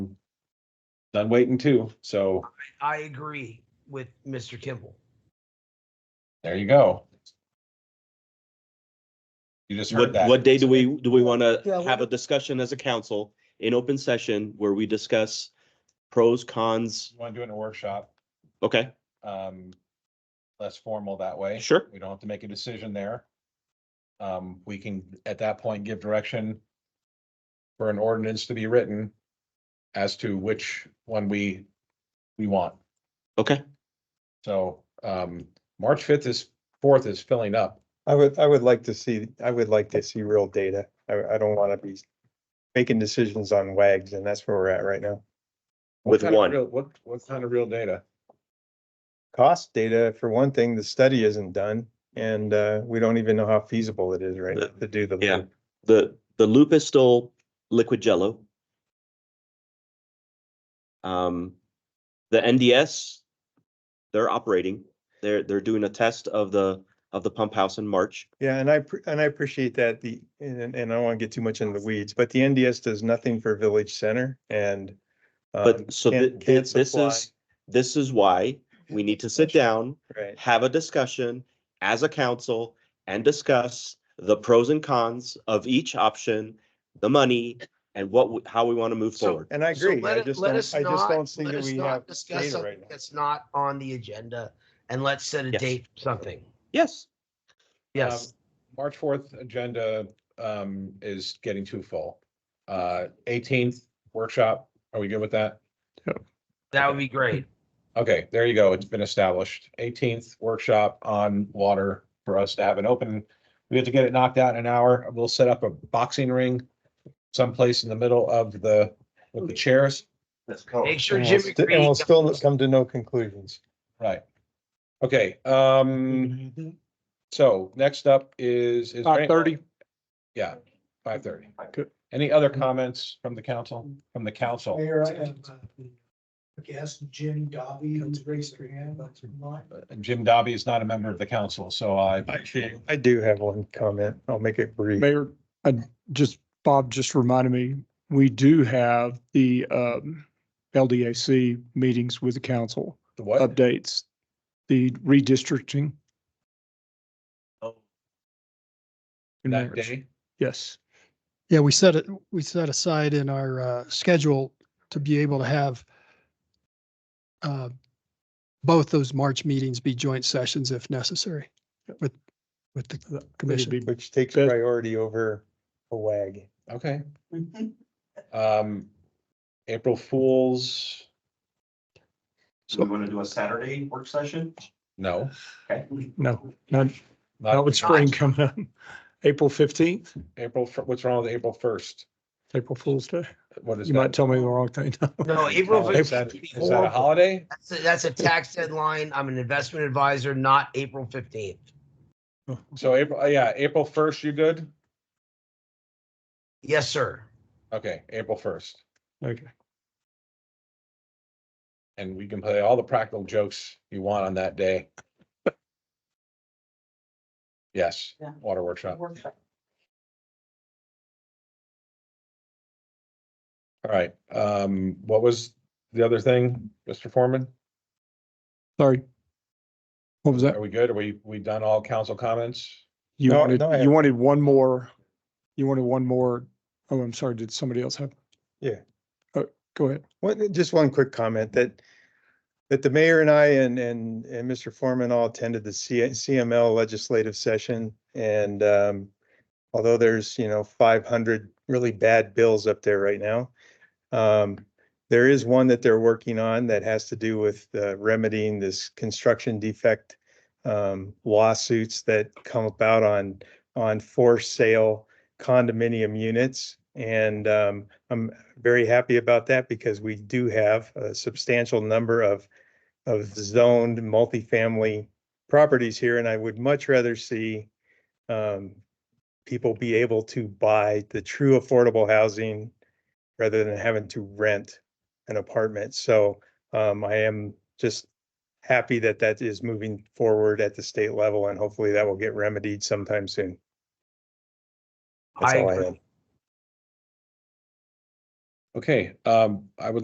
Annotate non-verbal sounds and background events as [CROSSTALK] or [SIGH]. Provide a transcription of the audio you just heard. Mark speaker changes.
Speaker 1: done waiting too. So
Speaker 2: I agree with Mr. Kimball.
Speaker 1: there you go. You just heard
Speaker 3: What,
Speaker 1: that.
Speaker 3: what day do we, do we want
Speaker 4: Yeah,
Speaker 3: to
Speaker 4: we
Speaker 3: have a
Speaker 4: don't-
Speaker 3: discussion as a council in open session where we discuss pros, cons?
Speaker 1: Want to do it in a workshop,
Speaker 3: Okay,
Speaker 1: um, less formal that way.
Speaker 3: Sure.
Speaker 1: We don't have to make a decision there. Um, we can, at that point, give direction for an ordinance to be written as to which one we, we want.
Speaker 3: okay.
Speaker 1: So, um, March fifth is, fourth is filling up.
Speaker 4: I would, I would like to see, I would like to see real data. I, I don't want to be making decisions on wags and that's where we're at right now.
Speaker 1: What
Speaker 3: With
Speaker 1: kind of
Speaker 3: one.
Speaker 1: real- What, what kind of real data?
Speaker 4: Cost data, for one thing, the study isn't done and, uh, we don't even know how feasible it is right now to do the.
Speaker 3: Yeah. The, the loop is still liquid jello. Um, the NDS, they're operating. They're, they're doing a test of the, of the pump house in March.
Speaker 4: Yeah, and I, appre- and I appreciate that the, and, and I don't want to get too much into the weeds, but the NDS does nothing for Village Center and. um,
Speaker 3: But so
Speaker 4: can't-
Speaker 3: thi- thi-
Speaker 4: can't
Speaker 3: this
Speaker 4: supply-
Speaker 3: is, this is why we need to sit down,
Speaker 4: Right,
Speaker 3: have a discussion as a council and discuss the pros and cons of each option, the money and what, w- how we want to move
Speaker 2: So-
Speaker 3: forward.
Speaker 4: and I
Speaker 2: So
Speaker 4: agree.
Speaker 2: let
Speaker 4: I
Speaker 2: it-
Speaker 4: just
Speaker 2: let
Speaker 4: don't, I
Speaker 2: us
Speaker 4: just
Speaker 2: not-
Speaker 4: don't see
Speaker 2: let
Speaker 4: that
Speaker 2: us
Speaker 4: we
Speaker 2: not
Speaker 4: have
Speaker 2: Discuss
Speaker 4: data
Speaker 2: something
Speaker 4: right now.
Speaker 2: that's not on the agenda and let's set a
Speaker 3: Yes.
Speaker 2: date for something.
Speaker 3: Yes,
Speaker 2: Yes,
Speaker 1: Um, March fourth agenda um is getting too full. Uh, eighteenth workshop, are we good with that?
Speaker 2: that would be great.
Speaker 1: Okay, there you go. It's been established. Eighteenth workshop on water for us to have an open. We have to get it knocked out in an hour. We'll set up a boxing ring someplace in the middle of the, with the chairs.
Speaker 2: Make sure
Speaker 4: oh, And we'll
Speaker 2: Jim
Speaker 4: sti- And we'll
Speaker 2: McCready
Speaker 4: still
Speaker 2: comes.
Speaker 4: not come to no conclusions.
Speaker 1: Right. Okay, um, so next up is. is there any-
Speaker 5: 5:30.
Speaker 1: Yeah, five thirty.
Speaker 5: Good.
Speaker 1: Any other comments from the council, from the council?
Speaker 6: Mayor, I have, uh, guest Jim Dobby, who's raised her hand, but not.
Speaker 1: Uh, Jim Dobby is not a member of the council, so I,
Speaker 4: I do have one comment. I'll make it brief.
Speaker 5: Mayor, I just, Bob just reminded me, we do have the um, LDAC meetings with the council
Speaker 1: the what?
Speaker 5: updates, the redistricting.
Speaker 3: Oh.
Speaker 5: in
Speaker 1: That
Speaker 5: March.
Speaker 1: day?
Speaker 5: Yes.
Speaker 7: Yeah, we set it, we set aside in our uh, schedule to be able to have uh, both those March meetings be joint sessions if necessary with, with the
Speaker 5: That
Speaker 7: commission.
Speaker 5: be-
Speaker 4: Which takes
Speaker 5: Beth-
Speaker 4: priority over a wag.
Speaker 1: Okay. Um, April Fools,
Speaker 5: So-
Speaker 3: want to do a Saturday work session?
Speaker 1: no.
Speaker 5: No, not,
Speaker 1: not-
Speaker 5: not with spring coming up. April fifteenth,
Speaker 1: April, fir- what's wrong with April first?
Speaker 5: April Fool's Day.
Speaker 1: What is
Speaker 5: You might
Speaker 1: that?
Speaker 5: tell me the wrong
Speaker 1: [LAUGHS]
Speaker 5: thing. [LAUGHS]
Speaker 2: No, April
Speaker 1: Oh, Is
Speaker 2: 15th
Speaker 1: that
Speaker 2: would be
Speaker 1: is that a
Speaker 2: horrible.
Speaker 1: holiday?
Speaker 2: That's a- That's a tax deadline. I'm an investment advisor, not April fifteenth.
Speaker 1: So April, uh, yeah, April first, you good?
Speaker 2: Yes, sir.
Speaker 1: Okay, April first.
Speaker 5: Okay.
Speaker 1: And we can play all the practical jokes you want on that day. Yes,
Speaker 8: Yeah.
Speaker 1: water workshop. All right, um, what was the other thing, Mr. Foreman?
Speaker 5: Sorry. What was that?
Speaker 1: Are we good? Are we, we done all council comments?
Speaker 5: You
Speaker 4: No,
Speaker 5: wanted,
Speaker 4: no, I
Speaker 5: you
Speaker 4: have-
Speaker 5: wanted one more, you wanted one more. Oh, I'm sorry. Did somebody else have?
Speaker 4: Yeah.
Speaker 5: Oh, go ahead.
Speaker 4: What, just one quick comment that, that the mayor and I and, and, and Mr. Foreman all attended the C- CML legislative session. And, um, although there's, you know, five hundred really bad bills up there right now. Um, there is one that they're working on that has to do with uh, remedying this construction defect um, lawsuits that come about on, on for sale condominium units. And, um, I'm, very happy about that because we do have a substantial number of of zoned multifamily properties here, and I would much rather see um people be able to buy the true affordable housing rather than having to rent an apartment. So um I am just happy that that is moving forward at the state level, and hopefully that will get remedied sometime soon. That's
Speaker 2: I
Speaker 4: all
Speaker 2: agree.
Speaker 4: have.
Speaker 1: Okay, um, I would